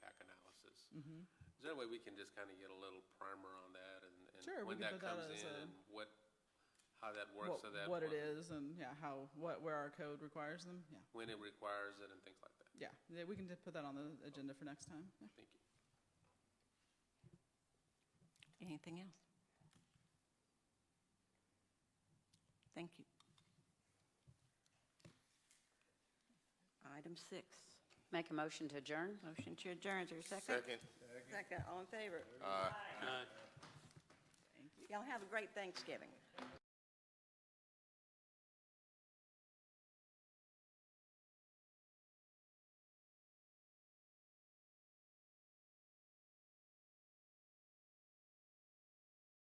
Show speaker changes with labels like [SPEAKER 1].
[SPEAKER 1] Mm-hmm.
[SPEAKER 2] Is there a way we can just kind of get a little primer on that and,
[SPEAKER 1] Sure, we
[SPEAKER 2] and when
[SPEAKER 1] can
[SPEAKER 2] that
[SPEAKER 1] put that
[SPEAKER 2] comes
[SPEAKER 1] as
[SPEAKER 2] in
[SPEAKER 1] a-
[SPEAKER 2] and what, how that works so
[SPEAKER 1] What,
[SPEAKER 2] that.
[SPEAKER 1] what it
[SPEAKER 2] when-
[SPEAKER 1] is and, yeah, how, what, where our code requires them, yeah,
[SPEAKER 2] When it requires it and things like that.
[SPEAKER 1] yeah. Yeah, we can just put that on the agenda for next time, yeah.
[SPEAKER 2] Thank you.
[SPEAKER 3] Anything else? Thank you. Item six,
[SPEAKER 4] Make a motion to adjourn?
[SPEAKER 3] motion to adjourn. Is there a second? Second, all in favor? Aye. Y'all have a great Thanksgiving.